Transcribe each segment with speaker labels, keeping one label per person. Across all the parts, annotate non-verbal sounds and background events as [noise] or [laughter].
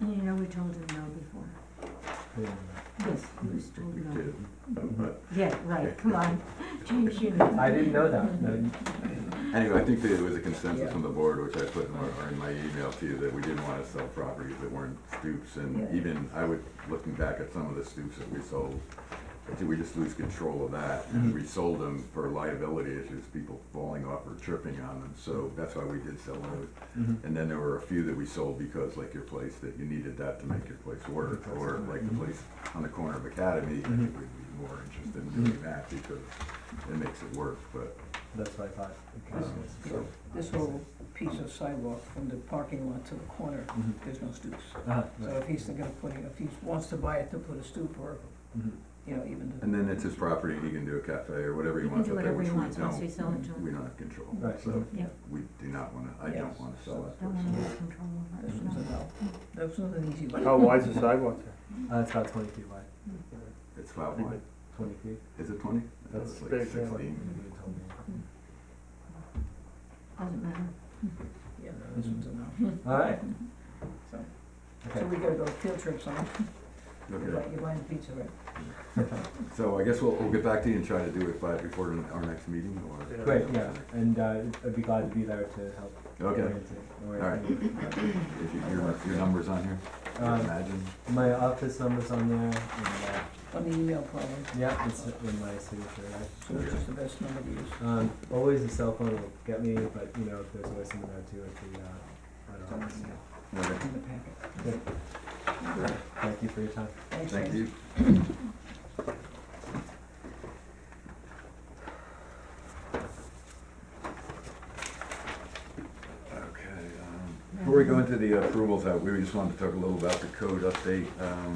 Speaker 1: You know, we told him no before. Yes, he was told
Speaker 2: We
Speaker 1: no.
Speaker 2: did, but
Speaker 1: Yeah, right, come on, James, you know.
Speaker 3: I didn't know that.
Speaker 4: Mm-hmm.
Speaker 3: No,
Speaker 2: anyway, I think there was a consensus
Speaker 3: Yeah.
Speaker 2: from the board, which I put in my, in my email to you, that we didn't wanna sell properties that weren't stoops, and
Speaker 3: Yeah.
Speaker 2: even, I would, looking back at some of the stoops that we sold, I think we just lose control of that, and we sold them for liability issues, people falling off or tripping on them, so that's why we did sell those.
Speaker 3: Mhm.
Speaker 5: Mm-hmm.
Speaker 2: And then there were a few that we sold because like your place, that you needed that to make your place work, or like the place on the corner of Academy, I think we'd be more interested in doing that because it makes it work, but,
Speaker 3: That's what I thought. Okay,
Speaker 2: um,
Speaker 3: so-
Speaker 2: so.
Speaker 4: This whole piece of sidewalk from the parking lot to the corner,
Speaker 3: Mhm.
Speaker 4: there's no stoops.
Speaker 3: Ah,
Speaker 4: So
Speaker 3: right.
Speaker 4: if he's thinking of putting, if he wants to buy it to put a stoop or,
Speaker 3: Mhm.
Speaker 4: you know, even to.
Speaker 2: And then it's his property, he can do a cafe or whatever he
Speaker 1: You can
Speaker 2: wants
Speaker 1: do
Speaker 2: up there,
Speaker 1: whatever
Speaker 2: which
Speaker 1: he
Speaker 2: we
Speaker 1: wants once we
Speaker 2: don't,
Speaker 1: sell it to him.
Speaker 2: we don't have control,
Speaker 3: Right.
Speaker 2: so
Speaker 1: Yeah.
Speaker 2: we do not wanna, I don't
Speaker 4: Yes.
Speaker 2: wanna sell that.
Speaker 1: Don't wanna lose control over
Speaker 4: This
Speaker 1: it,
Speaker 4: one's a
Speaker 1: no.
Speaker 4: no. This one's an easy one.
Speaker 5: How wide's the sidewalk there?
Speaker 3: Uh, it's about twenty feet wide,
Speaker 2: It's about wide,
Speaker 3: twenty feet.
Speaker 2: is it twenty?
Speaker 3: That's
Speaker 2: It's like
Speaker 5: big, Mm-hmm. yeah.
Speaker 2: sixteen,
Speaker 3: You told me.
Speaker 1: Doesn't matter.
Speaker 4: Yeah, no, this one's a no.
Speaker 3: All right.
Speaker 4: So- So
Speaker 3: Okay.
Speaker 4: we gotta go field trips on,
Speaker 2: okay.
Speaker 4: you're buying, you're buying pizza, right?
Speaker 2: So I guess we'll, we'll get back to you and try to do it by, before our next meeting or?
Speaker 5: Yeah.
Speaker 3: Great, yeah, and uh, I'd be glad to be there to help.
Speaker 2: Okay,
Speaker 3: orient it, or-
Speaker 2: All Uh, if you, your, your number's on here, I
Speaker 3: Um,
Speaker 2: imagine,
Speaker 3: my office number's on there, and, uh,
Speaker 4: On the email probably,
Speaker 3: yeah, it's in my signature, right?
Speaker 4: so it's just the best number to use.
Speaker 3: Um, always a cell phone will get me, but you know, there's always someone there too at the, uh,
Speaker 4: It's
Speaker 3: at
Speaker 4: on the
Speaker 3: office.
Speaker 4: email,
Speaker 2: okay,
Speaker 4: in the packet.
Speaker 3: Thank you for your time.
Speaker 4: Thanks,
Speaker 2: thank
Speaker 4: guys.
Speaker 2: you. Okay, um, before we go into the approvals, uh, we just wanted to talk a little about the code update, um,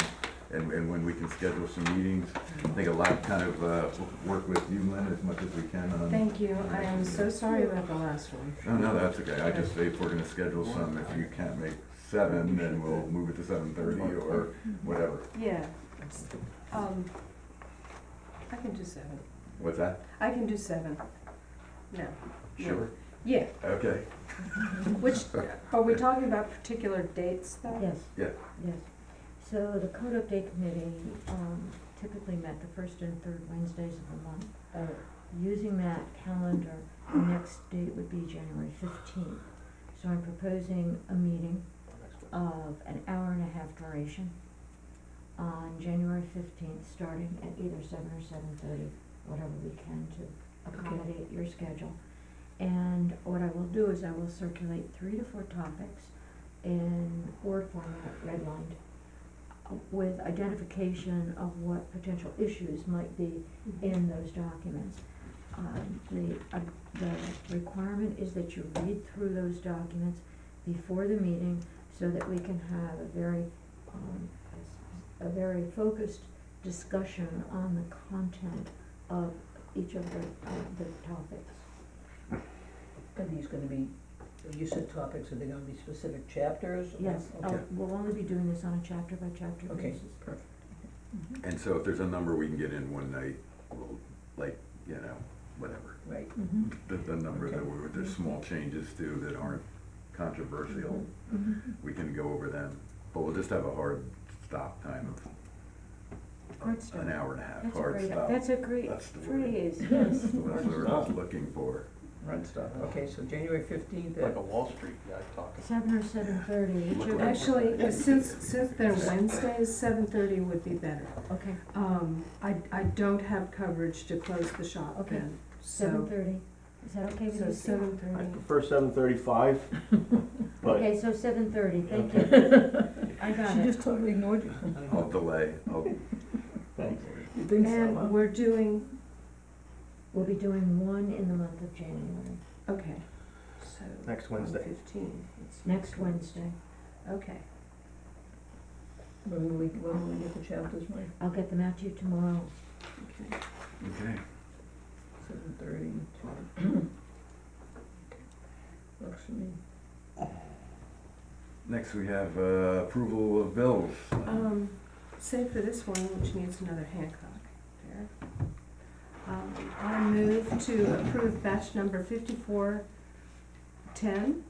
Speaker 2: and, and when we can schedule some meetings. I think a lot kind of, uh, work with you, Lynn, as much as we can on.
Speaker 6: Thank you, I am so sorry about the last one.
Speaker 2: No, no, that's okay, I just say if we're gonna schedule some, if you can't make seven, then we'll move it to seven thirty or whatever.
Speaker 6: Yeah. Um, I can do seven.
Speaker 2: What's that?
Speaker 6: I can do seven. No. no.
Speaker 2: Sure.
Speaker 6: Yeah,
Speaker 2: Okay,
Speaker 6: which, are we talking about particular dates though?
Speaker 1: Yes.
Speaker 2: Yeah.
Speaker 1: Yes. So the code update committee um, typically met the first and third Wednesdays of the month. Uh, Using that calendar, the next date would be January fifteenth. So I'm proposing a meeting of an hour and a half duration on January fifteenth, starting at either seven or seven thirty, whatever we can to accommodate your schedule. And what I will do is I will circulate three to four topics in word format, redlined, uh, with identification of what potential issues might be
Speaker 6: Mm-hmm.
Speaker 1: in those documents. Um, The, uh, the requirement is that you read through those documents before the meeting so that we can have a very, um, a very focused discussion on the content of each of the, of the topics.
Speaker 4: Are these gonna be, you said topics, are they gonna be specific chapters? or-
Speaker 1: Yes,
Speaker 6: Oh.
Speaker 1: uh,
Speaker 4: Okay,
Speaker 1: we'll only be doing this on a chapter by chapter
Speaker 4: Okay.
Speaker 1: basis.
Speaker 4: perfect. Mm-hmm.
Speaker 2: and so if there's a number we can get in one night, we'll, like, you know, whatever.
Speaker 4: Right,
Speaker 1: Mhm,
Speaker 2: The, the number that
Speaker 4: Okay.
Speaker 2: we, there's small changes too that aren't controversial,
Speaker 1: mhm.
Speaker 2: we can go over them, but we'll just have a hard stop time
Speaker 1: Hard
Speaker 2: of
Speaker 1: stop.
Speaker 2: an hour and a half,
Speaker 1: That's a
Speaker 2: hard
Speaker 1: great,
Speaker 2: stop.
Speaker 1: that's a great
Speaker 2: That's the word.
Speaker 1: phrase, yes.
Speaker 2: That's the word I was looking for.
Speaker 4: right.
Speaker 2: stop.
Speaker 4: Okay, so January fifteenth
Speaker 5: Like
Speaker 4: at
Speaker 5: a Wall Street guy talking.
Speaker 1: Seven or seven thirty, each of us,
Speaker 6: Actually, since, since they're Wednesdays, seven thirty would be better.
Speaker 1: okay,
Speaker 6: Um, I, I don't have coverage to close the shop
Speaker 1: Okay.
Speaker 6: then,
Speaker 1: seven
Speaker 6: so,
Speaker 1: thirty, is that okay with
Speaker 6: so
Speaker 1: you, Steve?
Speaker 6: seven
Speaker 5: I
Speaker 6: thirty.
Speaker 5: prefer seven thirty-five, but
Speaker 1: Okay, so seven thirty, thank you. I got
Speaker 4: She
Speaker 1: it.
Speaker 4: just totally ignored you.
Speaker 2: I'll delay,
Speaker 1: [laughs]
Speaker 2: I'll,
Speaker 5: thanks.
Speaker 4: You think
Speaker 6: And we're doing,
Speaker 1: We'll be doing one in the month of January,
Speaker 6: okay, so.
Speaker 5: Next Wednesday.
Speaker 6: Fifteen.
Speaker 1: next Wednesday.
Speaker 6: Okay.
Speaker 4: When will we, when will we get the chapters, Mike?
Speaker 1: I'll get them out to you tomorrow.
Speaker 6: Okay.
Speaker 2: okay,
Speaker 4: Seven thirty Works for me.
Speaker 2: next we have, uh, approval of bills.
Speaker 6: Um, save for this one, which needs another Hancock there. Um, I move to approve batch number fifty-four ten